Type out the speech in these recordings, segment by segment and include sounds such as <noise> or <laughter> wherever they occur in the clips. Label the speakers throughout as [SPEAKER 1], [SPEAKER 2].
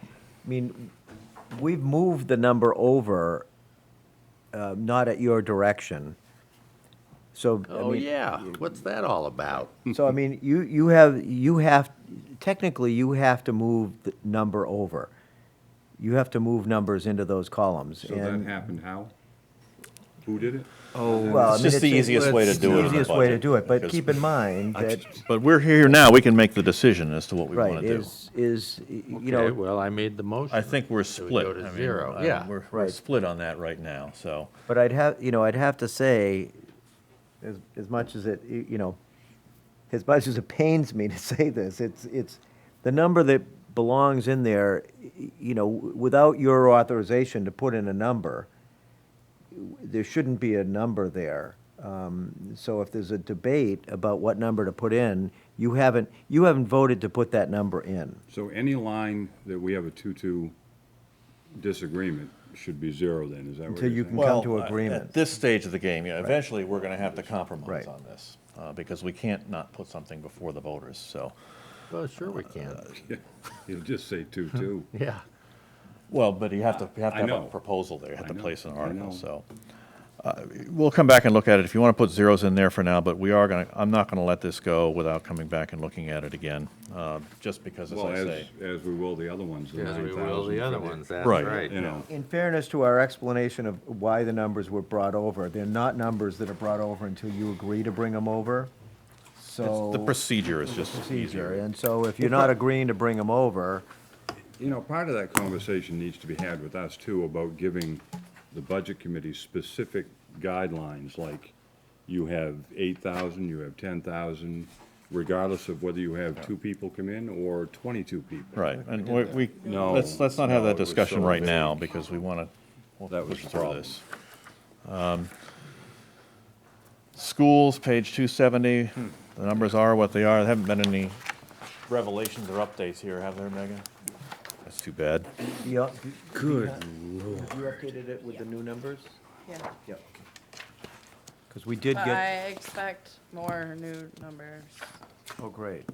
[SPEAKER 1] I mean, we've moved the number over, uh, not at your direction. So, I
[SPEAKER 2] Oh,
[SPEAKER 1] mean,
[SPEAKER 2] yeah, what's that all about?
[SPEAKER 1] So, I mean, you, you have, you have, technically, you have to move the number over. You have to move numbers into those columns.
[SPEAKER 3] So that
[SPEAKER 1] and-
[SPEAKER 3] happened how? Who did it?
[SPEAKER 1] Well, I
[SPEAKER 4] It's
[SPEAKER 1] mean,
[SPEAKER 4] just the easiest
[SPEAKER 1] it's-
[SPEAKER 4] way to
[SPEAKER 1] it's
[SPEAKER 4] do it in
[SPEAKER 1] the
[SPEAKER 4] the
[SPEAKER 1] easiest way to
[SPEAKER 4] budget,
[SPEAKER 1] do it, but
[SPEAKER 4] because-
[SPEAKER 1] keep in mind that,
[SPEAKER 4] But we're here now, we can make the decision as to what we want
[SPEAKER 1] right,
[SPEAKER 4] to do.
[SPEAKER 1] is, is, you
[SPEAKER 2] Okay,
[SPEAKER 1] know,
[SPEAKER 2] well, I made the motion.
[SPEAKER 4] I think we're
[SPEAKER 2] So
[SPEAKER 4] split.
[SPEAKER 2] We go
[SPEAKER 4] I
[SPEAKER 2] to
[SPEAKER 4] mean,
[SPEAKER 2] zero,
[SPEAKER 4] I-
[SPEAKER 2] yeah.
[SPEAKER 4] We're, we're
[SPEAKER 1] Right.
[SPEAKER 4] split on that right now, so.
[SPEAKER 1] But I'd have, you know, I'd have to say, as, as much as it, y- you know, as much as it pains me to <laughs> say this, it's, it's, the number that belongs in there, y- you know, w- without your authorization to put in a number, w- there shouldn't be a number there. Um, so if there's a debate about what number to put in, you haven't, you haven't voted to put that number in.
[SPEAKER 3] So any line that we have a two-two disagreement should be zero then, is that what
[SPEAKER 1] Until you
[SPEAKER 3] you're
[SPEAKER 1] can
[SPEAKER 3] saying?
[SPEAKER 1] come to
[SPEAKER 4] Well, uh, At
[SPEAKER 1] agreement.
[SPEAKER 4] this stage of the game, yeah, eventually, we're going to have to compromise
[SPEAKER 1] Right.
[SPEAKER 4] on this, uh, because we can't not put something before the voters, so.
[SPEAKER 2] Well, sure we can,
[SPEAKER 4] Uh,
[SPEAKER 3] <laughs> You'll just say <laughs> two-two.
[SPEAKER 2] yeah.
[SPEAKER 4] Well, but you have to, you have
[SPEAKER 3] I
[SPEAKER 4] to have a
[SPEAKER 3] know.
[SPEAKER 4] proposal there, you have
[SPEAKER 3] I
[SPEAKER 4] to
[SPEAKER 3] know,
[SPEAKER 4] place an
[SPEAKER 3] I
[SPEAKER 4] article,
[SPEAKER 3] know.
[SPEAKER 4] so. uh, We'll come back and look at it, if you want to put zeros in there for now, but we are going to, I'm not going to let this go without coming back and looking at it again, uh, just because, as
[SPEAKER 3] Well,
[SPEAKER 4] I
[SPEAKER 3] as,
[SPEAKER 4] say.
[SPEAKER 3] as we will the other ones, the
[SPEAKER 2] As
[SPEAKER 3] nine
[SPEAKER 2] we will the other
[SPEAKER 3] thousand.
[SPEAKER 2] ones, that's
[SPEAKER 4] Right.
[SPEAKER 2] right.
[SPEAKER 3] You know,
[SPEAKER 1] In fairness to our explanation of why the numbers were brought over, they're not numbers that are brought over until you agree to bring them over, so.
[SPEAKER 4] The procedure is just
[SPEAKER 1] Procedure,
[SPEAKER 4] easier.
[SPEAKER 1] and so if you're not agreeing to bring them over,
[SPEAKER 3] you know, part of that conversation needs to be had with us too about giving the budget committee specific guidelines, like you have eight thousand, you have ten thousand, regardless of whether you have two people come in or twenty-two people.
[SPEAKER 4] Right, and we, we,
[SPEAKER 3] No,
[SPEAKER 4] let's, let's not have
[SPEAKER 3] no,
[SPEAKER 4] that
[SPEAKER 3] it was
[SPEAKER 4] discussion
[SPEAKER 3] so
[SPEAKER 4] right
[SPEAKER 3] vague.
[SPEAKER 4] now, because we want to
[SPEAKER 3] That was
[SPEAKER 4] push
[SPEAKER 3] the
[SPEAKER 4] through
[SPEAKER 3] problem.
[SPEAKER 4] this. Um, Schools, page 270,
[SPEAKER 3] Hmm.
[SPEAKER 4] the numbers are what they are, there haven't been any revelations or updates here, have there, Megan? That's too bad.
[SPEAKER 1] you. Good You updated it with the new numbers?
[SPEAKER 5] Yeah,
[SPEAKER 1] Yep. Because we did
[SPEAKER 5] but I
[SPEAKER 1] get,
[SPEAKER 5] expect more new numbers.
[SPEAKER 1] oh, great.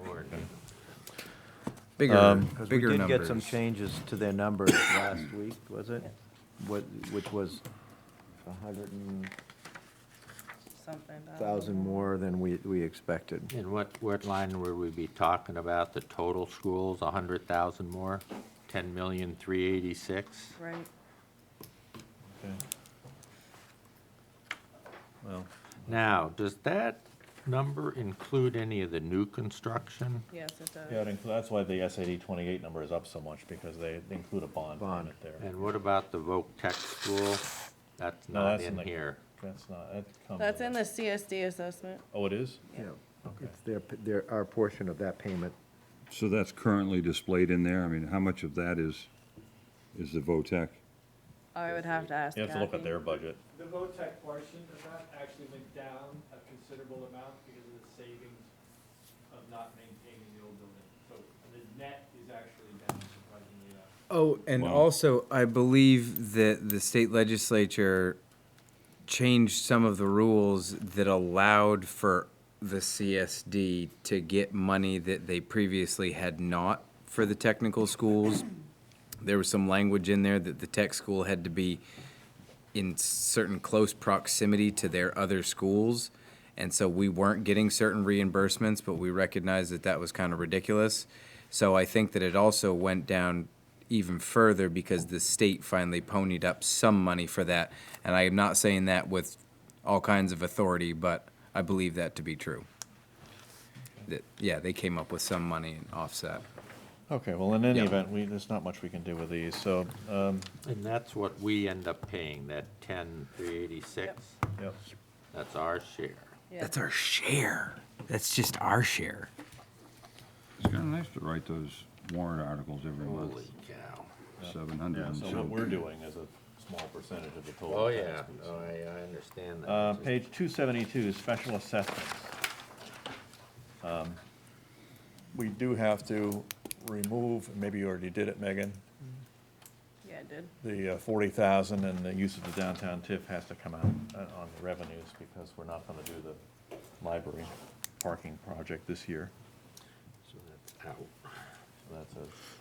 [SPEAKER 4] Um,
[SPEAKER 6] Bigger,
[SPEAKER 1] Because we
[SPEAKER 6] bigger
[SPEAKER 1] did get some
[SPEAKER 6] numbers.
[SPEAKER 1] changes to their numbers last week, was it? What, which was a hundred and
[SPEAKER 5] Something. I don't
[SPEAKER 1] thousand
[SPEAKER 5] know.
[SPEAKER 1] more than we, we expected.
[SPEAKER 2] And what, what line would we be talking about, the total schools, a hundred thousand more? Ten million, three eighty-six?
[SPEAKER 5] Right.
[SPEAKER 4] Well,
[SPEAKER 2] Now, does that number include any of the new construction?
[SPEAKER 5] Yes, it does.
[SPEAKER 4] yeah, it inclu- that's why the SAD 28 number is up so much, because they they include a bond
[SPEAKER 1] Bond.
[SPEAKER 4] payment there.
[SPEAKER 2] And what about the Voc Tech School? That's
[SPEAKER 4] No,
[SPEAKER 2] not
[SPEAKER 4] that's in
[SPEAKER 2] in
[SPEAKER 4] the-
[SPEAKER 2] here.
[SPEAKER 4] That's not, that comes.
[SPEAKER 5] That's in the CSD assessment.
[SPEAKER 4] Oh, it is?
[SPEAKER 1] Yeah. It's their, their, our portion of that payment.
[SPEAKER 3] So that's currently displayed in there? I mean, how much of that is, is the VOTEC?
[SPEAKER 5] I would have to ask
[SPEAKER 4] You have to look at
[SPEAKER 5] Kathy.
[SPEAKER 4] their budget.
[SPEAKER 7] The VOTEC portion of that actually went down a considerable amount because of the savings of not maintaining the old building. So the net is actually down surprisingly enough.
[SPEAKER 6] Oh, and
[SPEAKER 3] Wow.
[SPEAKER 6] also, I believe that the state legislature changed some of the rules that allowed for the CSD to get money that they previously had not for the technical schools. There was some language in there that the tech school had to be in certain close proximity to their other schools. And so we weren't getting certain reimbursements, but we recognized that that was kind of ridiculous. So I think that it also went down even further because the state finally ponied up some money for that. And I am not saying that with all kinds of authority, but I believe that to be true. That, yeah, they came up with some money and offset.
[SPEAKER 4] Okay, well, in any event, we, there's not much we can do with these, so, um,
[SPEAKER 2] And that's what we end up paying, that ten, three eighty-six? That's our share.
[SPEAKER 5] Yeah.
[SPEAKER 6] That's our share. That's just our share.
[SPEAKER 3] It's kind of nice to write those warrant articles every month,
[SPEAKER 2] Holy cow.
[SPEAKER 3] seven hundred and
[SPEAKER 4] so what
[SPEAKER 3] something.
[SPEAKER 4] we're doing is a small percentage of the total.
[SPEAKER 2] Oh,
[SPEAKER 4] tax
[SPEAKER 2] yeah,
[SPEAKER 4] piece.
[SPEAKER 2] oh, I, I understand that.
[SPEAKER 4] Uh,
[SPEAKER 2] Just-
[SPEAKER 4] page two seventy-two, special assessments. Um, We do have to remove, maybe you already did it, Megan,
[SPEAKER 5] Yeah, it did.
[SPEAKER 4] the uh, forty thousand and the use of the downtown TIF has to come out uh, on the revenues because we're not gonna do the library parking project this year.
[SPEAKER 2] So that's out.
[SPEAKER 4] So That's a